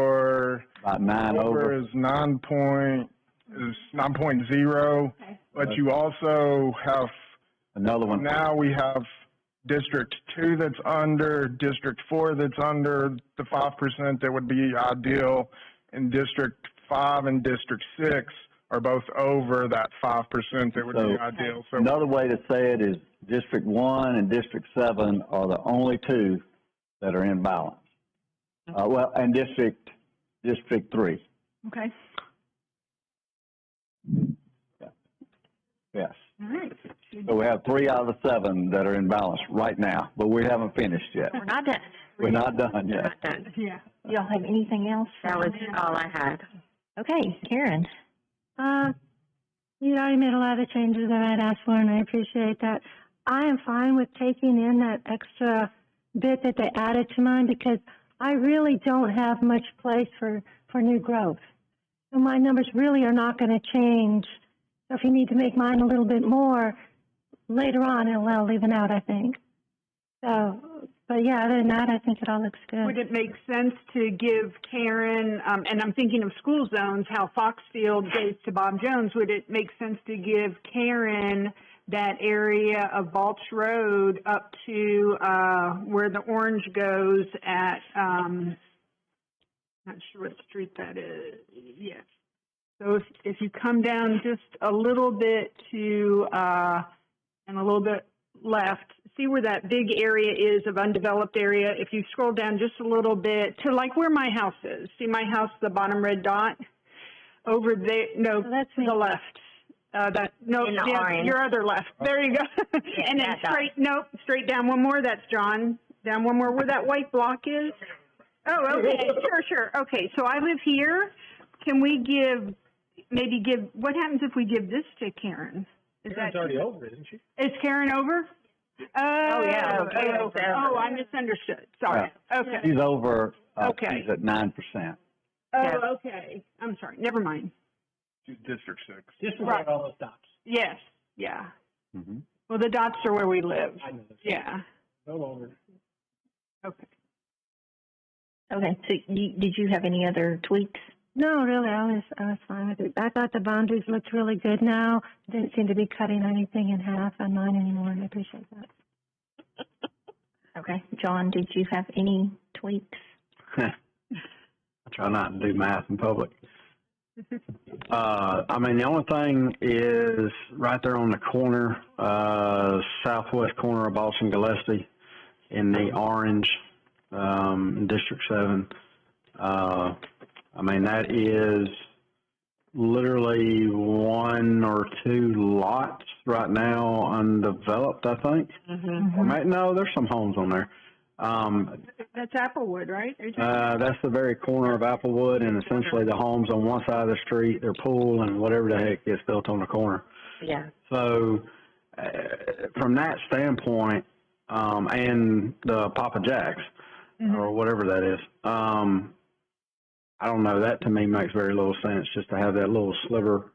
your About nine over over. is nine point, is nine point zero, Okay. but you also have, Another one. now we have District Two that's under, District Four that's under the five percent that would be ideal, and District Five and District Six are both over that five percent that would be So- ideal, so. Another way to say it is District One and District Seven are the only two that are in balance. Uh, Mm-hmm. well, and District, District Three, Okay, yes. all right. So we have three out of the seven that are in balance right now, but we haven't finished yet. We're not done. We're not done We're yet. not done. Yeah. Y'all have anything else? That was all I had. Okay, Karen. Uh, you already made a lot of changes that I'd asked for, and I appreciate that. I am fine with taking in that extra bit that they added to mine because I really don't have much place for, for new growth. So my numbers really are not going to change. So if you need to make mine a little bit more later on, it'll, it'll even out, I think. So, but yeah, other than that, I think it all looks good. Would it make sense to give Karen, um, and I'm thinking of school zones, how Foxfield goes to Bob Jones, would it make sense to give Karen that area of Balch Road up to, uh, where the orange goes at, um, not sure what street that is, yes. So if, if you come down just a little bit to, uh, and a little bit left, see where that big area is of undeveloped area. If you scroll down just a little bit to like where my house is, see my house, the bottom red dot over there. No, So that's to me. the left. Uh, that no, In the the oth- orange. Oh. your other left. There you go. and then that dot. straight. Nope, straight down one more. That's John. Down one more where that white block is. Oh, okay, sure, sure. Okay, so I live here. Can we give maybe give what happens if we give this to Karen? Is that over, isn't she? is Karen over? Oh, yeah, Karen's oh, over. oh, I misunderstood. Sorry. Okay. She's over, uh, Okay. she's at nine percent. Oh, okay. I'm sorry. Never mind. District Six. Just Right. where all those dots. Yes. Yeah. Mm-hmm. Well, the dots are where we live. I know this. Yeah. Go over. Okay. Okay, so you, did you have any other tweaks? No, really, I was I was fine with it. I thought the boundaries looked really good now. Didn't seem to be cutting anything in half on mine anymore, and I appreciate that. Okay, John, did you have any tweaks? I try not to do math in public. Uh, I mean, the only thing is right there on the corner, uh, southwest corner of Boston Gillespie in the orange, um, District 7. Uh, I mean, that is literally one or two lots right now undeveloped, I think. Mm-hmm. Or may- No, there's some homes on there. Um, That's Applewood, right? Are you talking- uh, that's the very corner of Applewood and essentially the homes on one side of the street, their pool and whatever the heck gets built on the corner. Yeah. So, uh, from that standpoint, um, and the Papa Jacks or whatever that is, um, I don't know. That to me makes very little sense just to have that little sliver,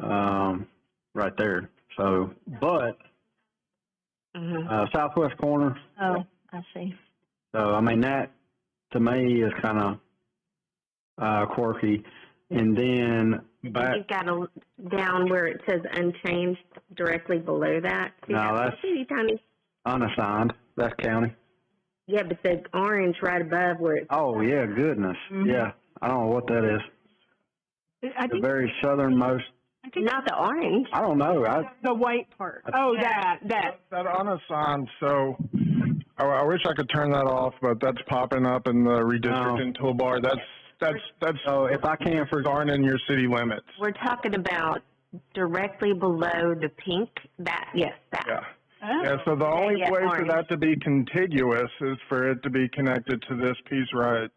um, right there. So, but, Mhm. uh, southwest corner, Oh, I see. so I mean that to me is kind of uh, quirky. And then back, You've got a, down where it says unchanged directly below that. See No, that that's- Teeny tiny. unassigned, that's county. Yeah, but the orange right above where it's, Oh yeah, goodness, Mm-hmm. yeah. I don't know what that is. I The think, very southernmost. I think not the orange. I don't know. I the white part. Oh, that, that. That unassigned, so I, I wish I could turn that off, but that's popping up in the redistricting toolbar. That's that's that's so Oh. if I can for darn in your city limits. We're talking about directly below the pink, that, yes, that. Yeah. Oh. Yeah, so the only yeah, way for orange. that to be contiguous is for it to be connected to this piece right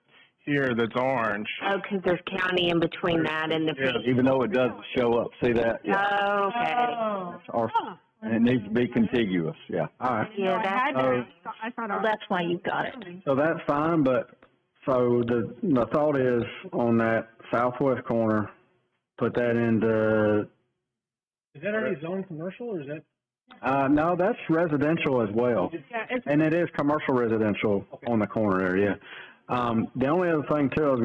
here that's orange. Oh, because there's county in between that and the Yeah. pink. Even though it doesn't show up, see that? Yeah. Okay. Oh. Or, Huh. and it needs to be contiguous, yeah. all right. No, Yeah, I that's, had Oh. that. I thought I Well, Oh, that's why you got it. So that's fine, but, so the, the thought is on that southwest corner, put that into, Is that already zoned commercial or is that? uh, no, that's residential as well. Yeah, it's And it is commercial residential on the corner there, yeah. Um, the only other thing too, I was